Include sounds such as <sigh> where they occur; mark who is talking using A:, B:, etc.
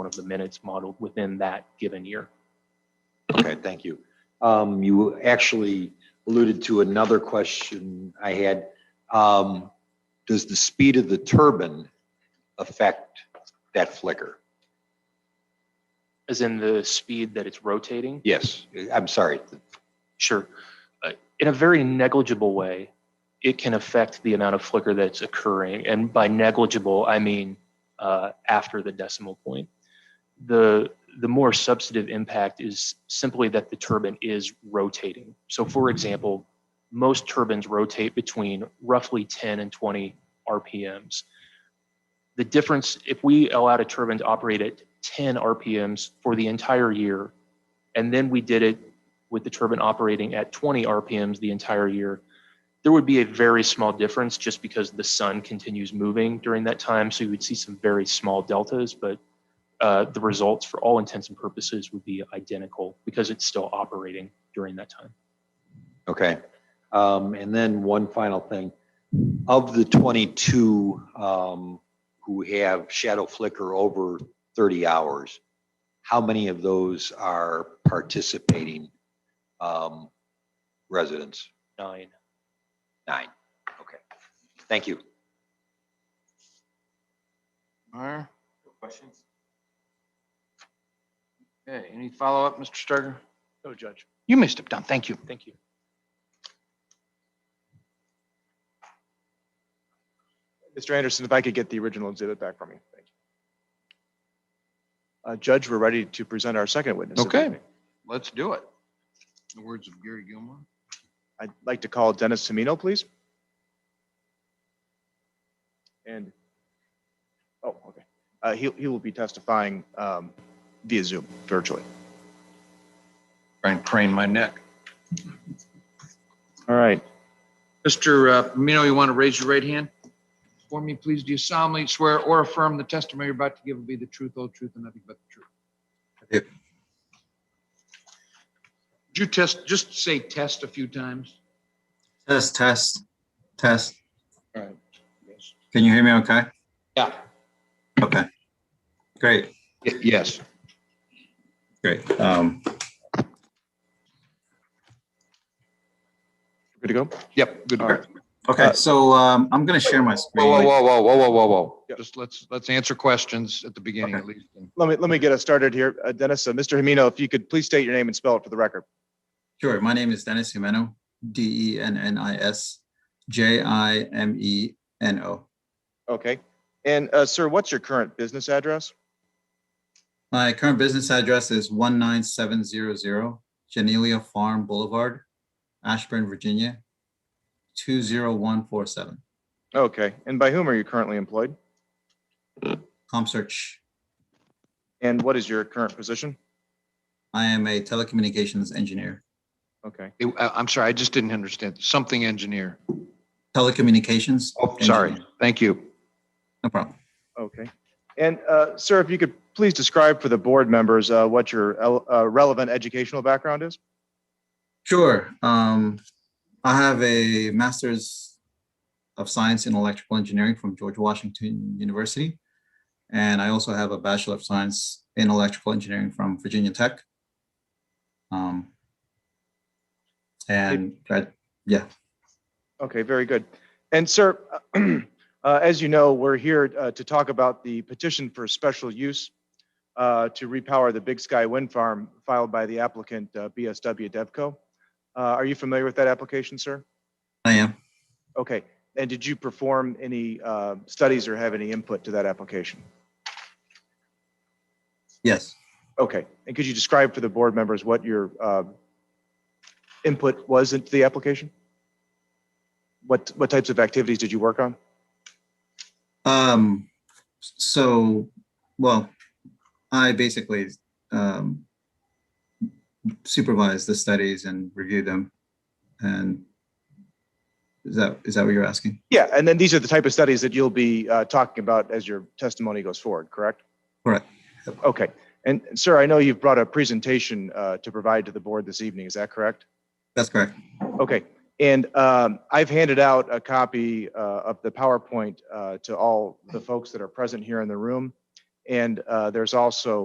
A: of the minutes modeled within that given year.
B: Okay, thank you. Um, you actually alluded to another question I had. Um, does the speed of the turbine affect that flicker?
A: As in the speed that it's rotating?
B: Yes, I'm sorry.
A: Sure. Uh, In a very negligible way, it can affect the amount of flicker that's occurring. And by negligible, I mean uh, after the decimal point. The, the more substantive impact is simply that the turbine is rotating. So, for example, most turbines rotate between roughly 10 and 20 RPMs. The difference, if we allowed a turbine to operate at 10 RPMs for the entire year, and then we did it with the turbine operating at 20 RPMs the entire year, there would be a very small difference just because the sun continues moving during that time. So you would see some very small deltas, but uh, the results for all intents and purposes would be identical because it's still operating during that time.
B: Okay. Um, and then one final thing. Of the twenty-two, um, who have shadow flicker over thirty hours, how many of those are participating, um, residents?
A: Nine.
B: Nine. Okay. Thank you.
C: Meyer? Questions? Okay, any follow-up, Mr. Sturger?
A: No, Judge.
C: You may step down, thank you.
A: Thank you.
D: Mr. Anderson, if I could get the original exhibit back from you. Thank you. Uh, Judge, we're ready to present our second witness. of the
C: Okay.
D: evening.
C: Let's do it. In the words of Gary Gilmore.
D: I'd like to call Dennis Semino, please. And, oh, okay. Uh, He, he will be testifying um, via Zoom virtually.
C: Trying to crane my neck.
D: All right.
C: Mr. uh, Mino, you want to raise your right hand? For me, please, do you solemnly swear or affirm the testimony you're about to give will be the truth, whole truth, and nothing but the truth?
E: Yep.
C: Did you test, just say test a few times?
E: Test, test, test.
C: All right. Yes.
E: Can you hear me okay?
C: Yeah.
E: Okay. Great,
C: Y- Yes.
E: great. Um,
D: Good to go?
C: Yep, good.
D: All
C: work.
D: right.
E: okay, so um, I'm gonna share my
C: Whoa,
E: screen.
C: Uh, whoa, whoa, whoa, whoa, whoa, whoa, whoa.
D: Yep.
C: Just let's, let's answer questions at the beginning
E: Okay.
C: at least. and-
D: Let me, let me get us started here. Uh, Dennis, uh, Mr. Semino, if you could please state your name and spell it for the record.
E: Sure, my name is Dennis Jimeno, D E N N I S J I M E N O.
D: Okay. And uh, sir, what's your current business address?
E: My current business address is one nine seven zero zero Genelia Farm Boulevard, Ashburn, Virginia, two zero one four seven.
D: Okay. And by whom are you currently employed?
E: ComSearch.
D: And what is your current position?
E: I am a telecommunications engineer.
D: Okay.
C: It- I- I'm sorry, I just didn't understand. Something engineer.
E: Telecommunications.
C: Oh, sorry.
E: engineer.
C: Thank you.
E: No problem.
D: Okay. And uh, sir, if you could please describe for the board members uh, what your el- uh, relevant educational background is?
E: Sure. Um, I have a master's of science in electrical engineering from George Washington University. And I also have a bachelor of science in electrical engineering from Virginia Tech. Um, and grad- yeah,
D: Okay, very good. And sir, <clears throat> uh, as you know, we're here uh, to talk about the petition for special use uh, to repower the Big Sky Wind Farm filed by the applicant uh, BSW Devco. Uh, Are you familiar with that application, sir?
E: I am.
D: Okay. And did you perform any uh, studies or have any input to that application?
E: Yes.
D: Okay, and could you describe for the board members what your um, input was into the application? What, what types of activities did you work on?
E: Um, so, well, I basically um, supervised the studies and reviewed them. And is that is that what you're asking?
D: Yeah, and then these are the type of studies that you'll be uh, talking about as your testimony goes forward, correct?
E: Correct.
D: Okay, and sir, I know you've brought a presentation uh, to provide to the board this evening, is that correct?
E: That's correct.
D: Okay, and um, I've handed out a copy uh, of the PowerPoint uh, to all the folks that are present here in the room. And uh, there's also